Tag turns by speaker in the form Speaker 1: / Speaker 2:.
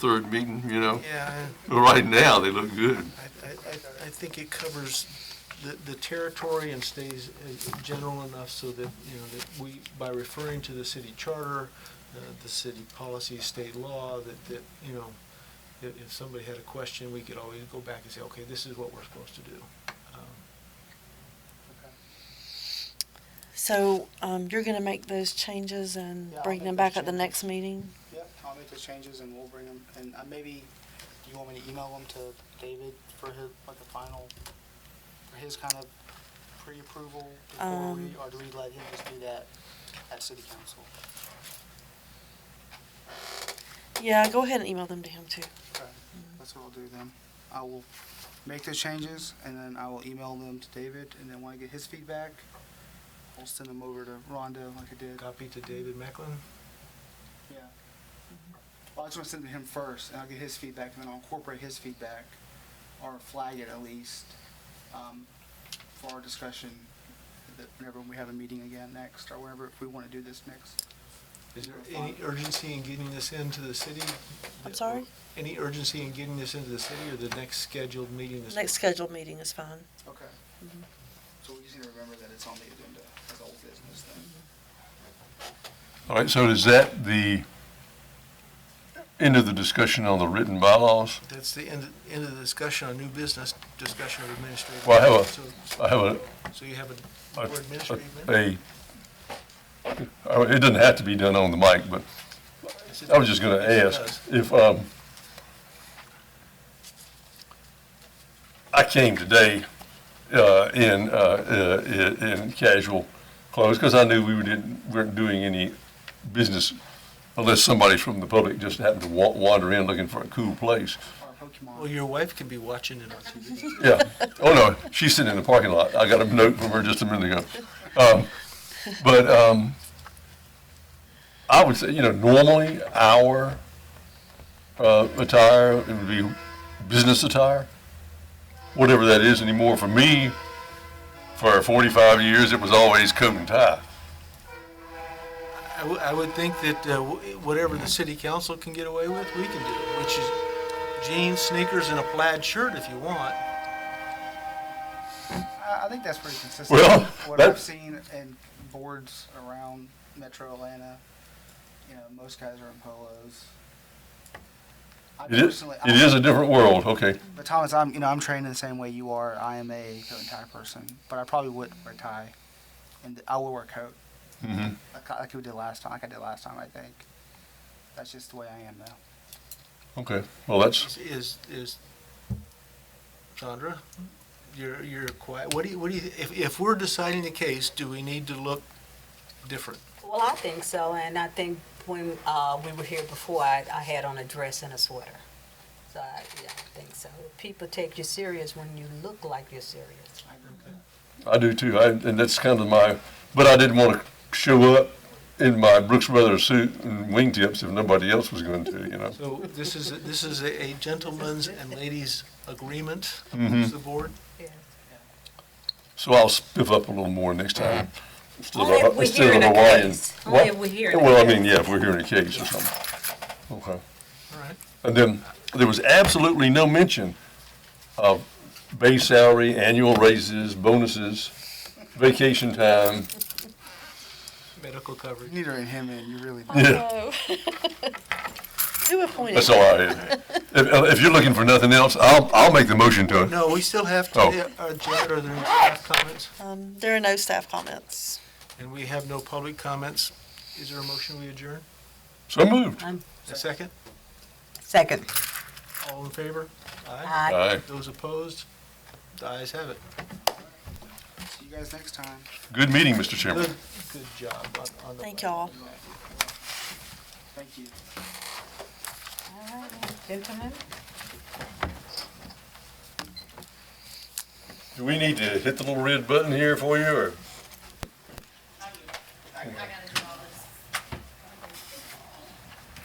Speaker 1: third meeting, you know?
Speaker 2: Yeah,
Speaker 1: Right now, they look good.
Speaker 2: I, I, I- I think it covers the, the territory and stays uh, general enough so that, you know, that we, by referring to the city charter, uh, the city policy, state law, that, that, you know, if, if somebody had a question, we could always go back and say, okay, this is what we're supposed to do. Um,
Speaker 3: So, um, you're gonna make those changes and
Speaker 4: Yeah, I'll
Speaker 3: bring
Speaker 4: make
Speaker 3: them
Speaker 4: those
Speaker 3: back at the
Speaker 4: changes.
Speaker 3: next meeting?
Speaker 4: Yep, I'll make those changes and we'll bring them, and uh, maybe, do you want me to email them to David for his, like a final, for his kind of pre-approval before we,
Speaker 3: Um.
Speaker 4: or do we let him just do that at city council?
Speaker 3: Yeah, go ahead and email them to him too.
Speaker 4: Okay, that's what I'll do then. I will make those changes and then I will email them to David and then when I get his feedback, I'll send them over to Rhonda like I did.
Speaker 2: Copy to David Macklin?
Speaker 4: Yeah. Well, I just want to send it to him first, and I'll get his feedback, and then I'll incorporate his feedback, or flag it at least, um, for our discussion, that whenever we have a meeting again next, or whenever, if we want to do this next.
Speaker 2: Is there any urgency in getting this into the city?
Speaker 3: I'm sorry?
Speaker 2: Any urgency in getting this into the city or the next scheduled meeting? is-
Speaker 3: Next scheduled meeting is fine.
Speaker 4: Okay. So we just need to remember that it's on the agenda as old business then.
Speaker 1: All right, so is that the end of the discussion on the written bylaws?
Speaker 2: That's the end, end of the discussion on new business, discussion of administrative.
Speaker 1: Well, I have a-
Speaker 2: So-
Speaker 1: I have
Speaker 2: So you have a
Speaker 1: a,
Speaker 2: board
Speaker 1: a,
Speaker 2: administrative minute?
Speaker 1: a, oh, it doesn't have to be done on the mic, but I was just gonna
Speaker 2: Yes, it
Speaker 1: ask if, um, I came today, uh, in, uh, uh, i- in casual clothes, because I knew we didn't, weren't doing any business unless somebody from the public just happened to wa- wander in looking for a cool place.
Speaker 4: Or Pokemon.
Speaker 2: Well, your wife can be watching it on TV.
Speaker 1: Yeah. Oh, no, she's sitting in the parking lot. I got a note from her just a minute ago. Um, but um, I would say, you know, normally our uh, attire it would be business attire, whatever that is anymore. For me, for 45 years, it was always coat and tie.
Speaker 2: I would, I would think that uh, wh- whatever the city council can get away with, we can do, which is jeans, sneakers, and a plaid shirt if you want.
Speaker 4: I, I think that's pretty consistent.
Speaker 1: Well,
Speaker 4: with what
Speaker 1: that-
Speaker 4: I've seen in boards around Metro Atlanta, you know, most guys are in polos. I
Speaker 1: It is,
Speaker 4: personally-
Speaker 1: it is a different world, okay.
Speaker 4: But Thomas, I'm you know I'm trained in the same way you are. I am a coat and tie person, but I probably would wear a tie, and I would wear a coat
Speaker 1: Mhm.
Speaker 4: like, like we did last time, like I did last time. I think that's just the way I am though.
Speaker 1: Okay, well, that's,
Speaker 2: Is, is, Sandra, you're, you're quiet. What do you, what do you, if, if we're deciding the case, do we need to look different?
Speaker 5: Well, I think so, and I think when uh, we were here before, I, I had on a dress and a sweater. So I, yeah, I think so. People take you serious when you look like you're serious.
Speaker 4: I agree with that.
Speaker 1: I do too, I, and that's kind of my, but I didn't want to show up in my Brooks Brothers suit and wingtips if nobody else was going to, you know.
Speaker 2: So this is, this is a a gentleman's and ladies' agreement
Speaker 1: Mhm.
Speaker 2: amongst the board?
Speaker 5: Yeah.
Speaker 1: So I'll spiff up a little more next time. Instead of
Speaker 5: Only if
Speaker 1: a-
Speaker 5: we're
Speaker 1: instead of
Speaker 5: hearing a
Speaker 1: Hawaiian.
Speaker 5: case. Only if
Speaker 1: What?
Speaker 5: we're hearing a
Speaker 1: Well, I
Speaker 5: case.
Speaker 1: mean, yeah, if we're hearing a case or something. Okay.
Speaker 2: All right.
Speaker 1: And then there was absolutely no mention of base salary, annual raises, bonuses, vacation time.
Speaker 2: Medical coverage.
Speaker 4: You need to rein him in. You really do.
Speaker 1: Yeah,
Speaker 3: Who appointed?
Speaker 1: that's all I had. If, if you're looking for nothing else, I'll, I'll make the motion to it.
Speaker 2: No, we still have
Speaker 1: Oh.
Speaker 2: to, uh, Janet, are there any staff comments?
Speaker 3: Um, there are no staff comments.
Speaker 2: And we have no public comments. Is there a motion we adjourn?
Speaker 1: So moved.
Speaker 2: A second?
Speaker 5: Second.
Speaker 2: All in favor? Aye.
Speaker 5: I
Speaker 1: Aye.
Speaker 2: Those opposed? The ayes have it.
Speaker 4: See you guys next time.
Speaker 1: Good meeting, Mr. Chairman.
Speaker 2: Good, good job on, on the.
Speaker 3: Thank y'all.
Speaker 4: Thank you.
Speaker 5: Gentlemen?
Speaker 1: Do we need to hit the little red button here for you, or?